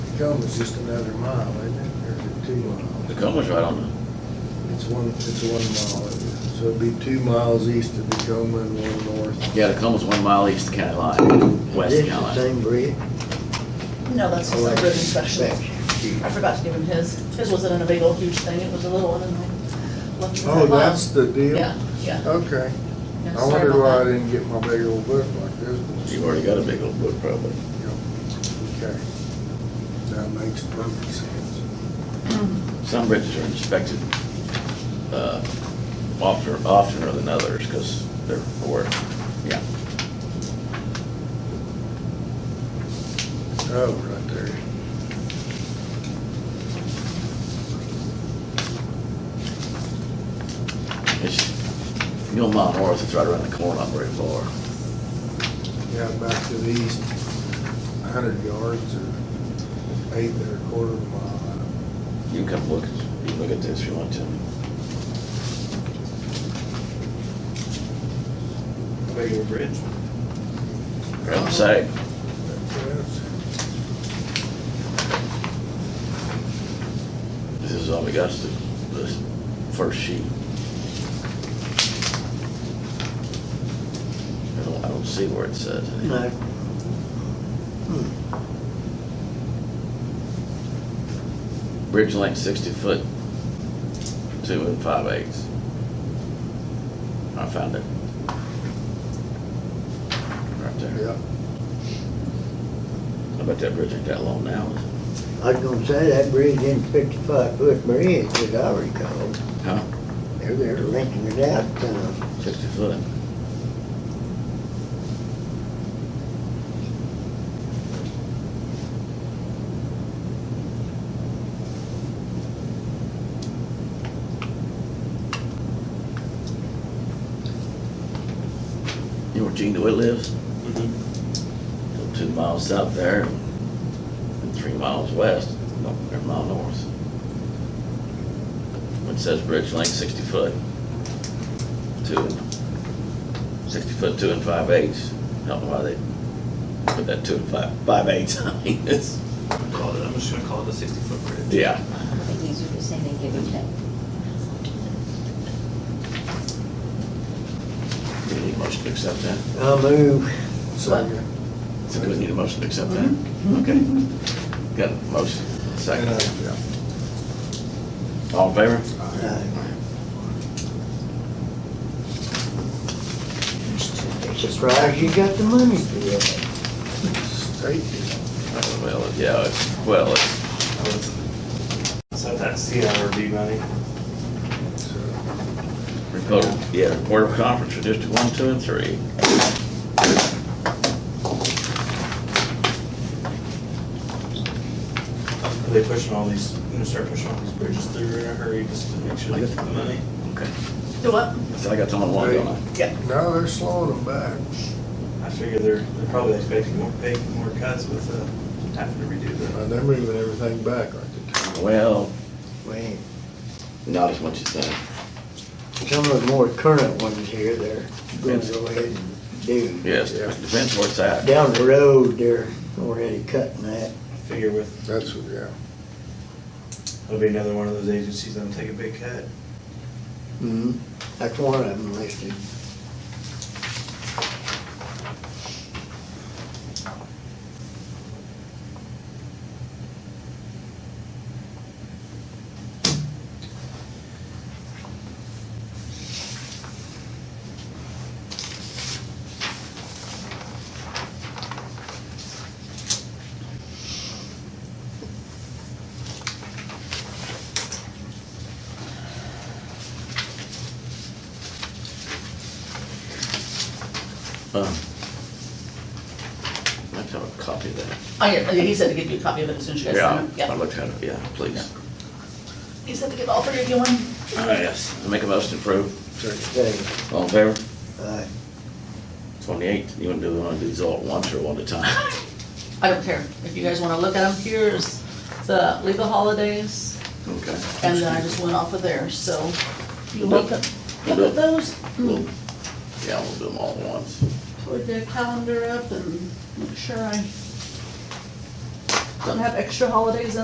Tacoma's just another mile, isn't it, or is it two miles? Tacoma's right on the, It's one, it's one mile, so it'd be two miles east of Tacoma and one north. yeah, Tacoma's one mile east of county line, west This of is the county line. same bridge? No, that's Oh, just a ribbon specialist. I Section. forgot to give him his. His wasn't a big old huge thing, it was a little one and I left it in Oh, the that's box. the deal? Oh. Yeah, yeah. Okay, Yeah, I sorry wondered about why I that. didn't get my big old book like this one. You've already got a big old book probably. Yeah, Okay, that makes perfect sense. Some bridges are inspected, uh, oftener, oftener than others, cause they're poor, yeah. Oh, right there. It's, you know, Mount Morris, it's right around the corner, not very far. Yeah, back to the east, a hundred yards or eight and a quarter of a mile. You can come look, you can look at this if you want to. Big old bridge. I'm saying, That's- this is all we got, is the, the first sheet. I don't, I don't see where it says. anything. No. Bridge length sixty foot, two and five eighths. I found it. Right there. Yeah, I bet that bridge ain't that long now. is it? I was gonna say, that bridge ain't fifty-five foot bridge, as I recall. Huh? They're, they're renting it out, uh, Sixty foot. You know where Gene DeWitt lives? Go Two miles south there and three miles west, no, or a mile north. It says bridge length sixty foot two, sixty foot two and five eighths. I don't know why they put that two and five, five eighths. I mean, it's, Call it, I'm just gonna call it a sixty foot bridge. yeah. I think these are the same, they give each other. Do we need a motion to accept that? I'll move. second. So do we need a motion to accept that? Okay. Got a motion, And, Mm-hmm. uh, second. yeah. All in favor? Uh, Surprised you got the money for that. State deal. Oh, Well, yeah, it's, well, it's, So that's the IRB money. So, report, yeah, report of conference for District One, Two, and Three. Are they pushing all these, gonna start pushing all these bridges through in a hurry just to make sure they get the money? Okay. Do what? So I got someone one, don't I? Yeah. No, they're slowing them back. I figure they're, they're probably expecting more, big, more cuts with, uh, having to redo the. Uh, They're moving everything back, aren't they? Well, Wait, not as much as that. some of the more current ones here, they're gonna go ahead and do. Yes, Yeah. depends where it's at. Down the road, they're already cutting that. I figure with, That's, what- yeah. it'll be another one of those agencies that'll take a big cut. Mhm. That's one of them listed. Um, I have to have a copy of that. I, Oh, he said to give you a copy of it as soon as you guys send him. I Yeah. looked at it, yeah, please. He said to give all three of you one. Ah, yes. I Make a motion to approve. Second. Say, All in favor? uh, Twenty-eight, you wanna do, wanna do these all at once or one at a time? I don't care. If you guys wanna look at them, here's the legal holidays, Okay. and then I just went off of there, so you look at, look at those. Mm, We'll- Yeah, we'll do them all at once. Put the calendar up and make sure I don't have extra holidays in